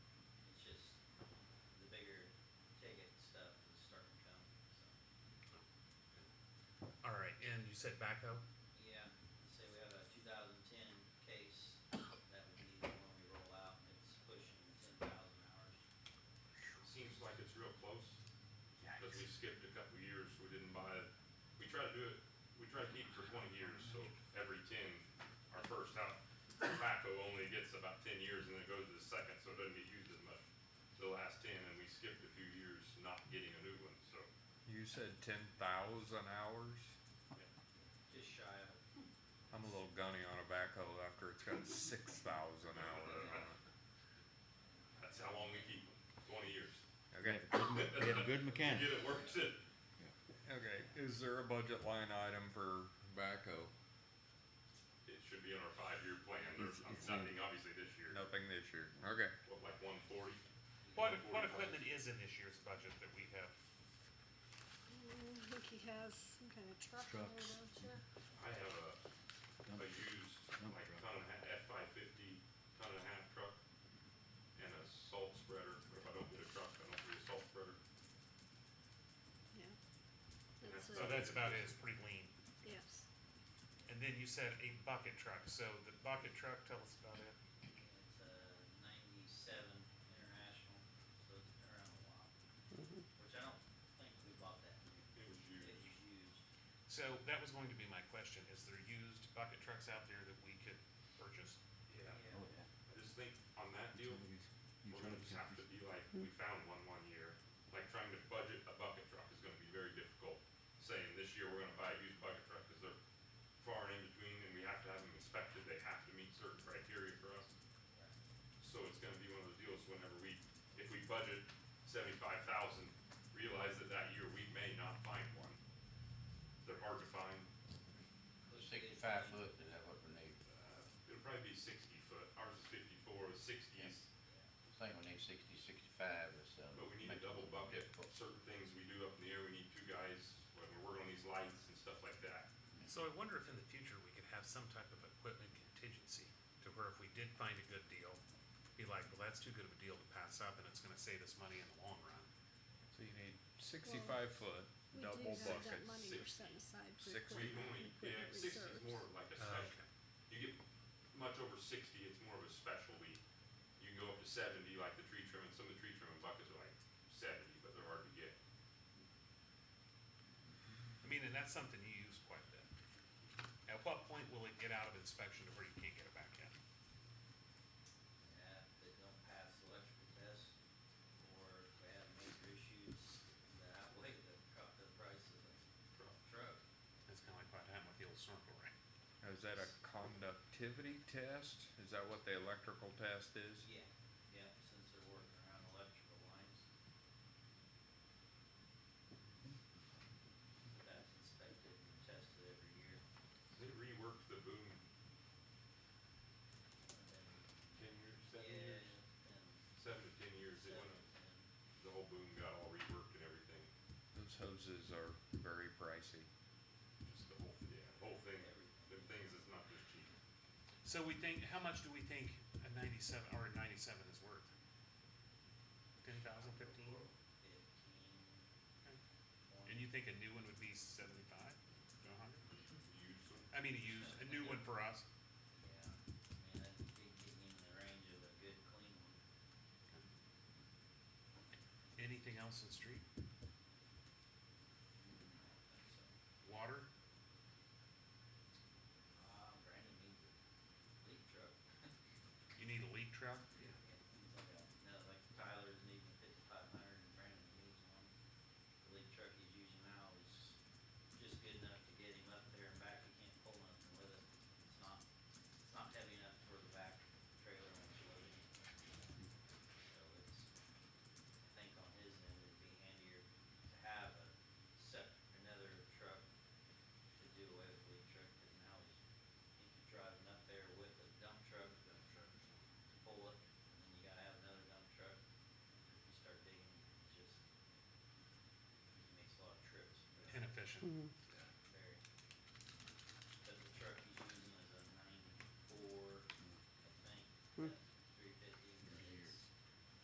setback though? Yeah, say we have a two thousand ten case that would be the one we roll out, and it's pushing ten thousand hours. Seems like it's real close, because we skipped a couple years, we didn't buy it. We try to do it, we try to keep it for twenty years, so every ten, our first house, tobacco only gets about ten years and then it goes to the second, so it doesn't get used as much. The last ten, and we skipped a few years not getting a new one, so, You said ten thousand hours. yeah. Just shy of it. I'm a little gunny on a backhoe after it's got six thousand hours on it. That's how long we keep them, twenty years. Okay. We have a good You mechanic. Get it works it. Okay. Is there a budget line item for backhoe? It should be on our five-year plan, there's It's- it's- nothing obviously this year, Nothing this year. Okay. what, like one forty? What, what equipment is in this year's budget that we have? Mm, I think he has some kind of truck there, don't Trucks. you? I have a, a used, Dump like, truck. ton and a half, F five fifty, ton and a half truck, and a salt spreader, but if I don't get a truck, I don't get a salt spreader. Yeah. That's That's So it, that's about it, it's pretty lean. yes. And then you said a bucket truck, so the bucket truck, tell us about it. It's a ninety-seven international, so it's been around a while. Which I don't think we bought that new. It was It used, was used. So that was going to be my question, is there used bucket trucks out there that we could purchase? yeah. Yeah. Oh, I just think on that deal, You we're try gonna to Mm-hmm. just have to be like, we found one one year, like, trying to budget a bucket truck is gonna be very difficult. Saying this year, we're gonna buy a used bucket truck, because they're far and in between, and we have to have them inspected, they have to meet certain criteria for us. So it's gonna be one of those deals whenever we, if we budget seventy-five thousand, realize that that year we may not find one. They're hard to find, Sixty-five foot, is that what we need? uh, it'll probably be sixty foot, ours is fifty-four, the sixties, I think we need sixty, sixty-five or something. but we need a double bucket. Certain things we do up in the air, we need two guys, when we're working on these lights and stuff like that. So I wonder if in the future we could have some type of equipment contingency to where if we did find a good deal, be like, well, that's too good of a deal to pass up and it's gonna save us money in the long run. So you need sixty-five foot We do double have that buckets. money we're six- setting aside for six We equipment only, yeah, equipment sixty's reserves. more like a Uh-huh. Uh, special, you get much over sixty, it's more of a specialty. You can go up to seventy, like the tree trimming, some of the tree trimming buckets are like seventy, but they're hard to get. I mean, and that's something you use quite a bit. At what point will it get out of inspection to where you can't get it back in? Yeah, if they don't pass the electrical test, or if we have major issues that outweigh the, co- the price of the truck. That's kinda like what happened with the old snorkel ring. Is that a conductivity test? Is that what the electrical test is? Yeah, yeah, since they're working around electrical lines. That's inspected and tested every year. They reworked the boom ten years, And, seven yeah, and years, seven to ten years, it seven, went, and the whole boom got all reworked and everything. Those hoses are very pricey. Just the whole, yeah, the whole thing, Everything. them things is not just cheap. So we think, how much do we think a ninety-seven, or a ninety-seven is worth? Ten thousand, fifteen? fifteen, And you think a new one would be seventy-five, a hundred? Used them. I mean, a used, a new one for us. yeah, I mean, that'd be getting in the range of a good clean one. Anything else in street? So, Water? uh, Brandon needs a leak truck. You need a leak truck? Yeah, things like that. Now, like Tyler's needing a fifty-five hundred and Brandon needs one. The leak truck he's using now is just good enough to get him up there and back. He can't pull nothing with it. It's not, it's not heavy enough for the back trailer when it's loaded. So it's, I think on his end, it'd be handier to have a sep, another truck to do away with the leak truck, because now he's, he can drive it up there with a dump truck, dump truck, to pull it, and then you gotta have another dump truck. If you start digging, it just, it makes a lot of trips. but- Inefficient.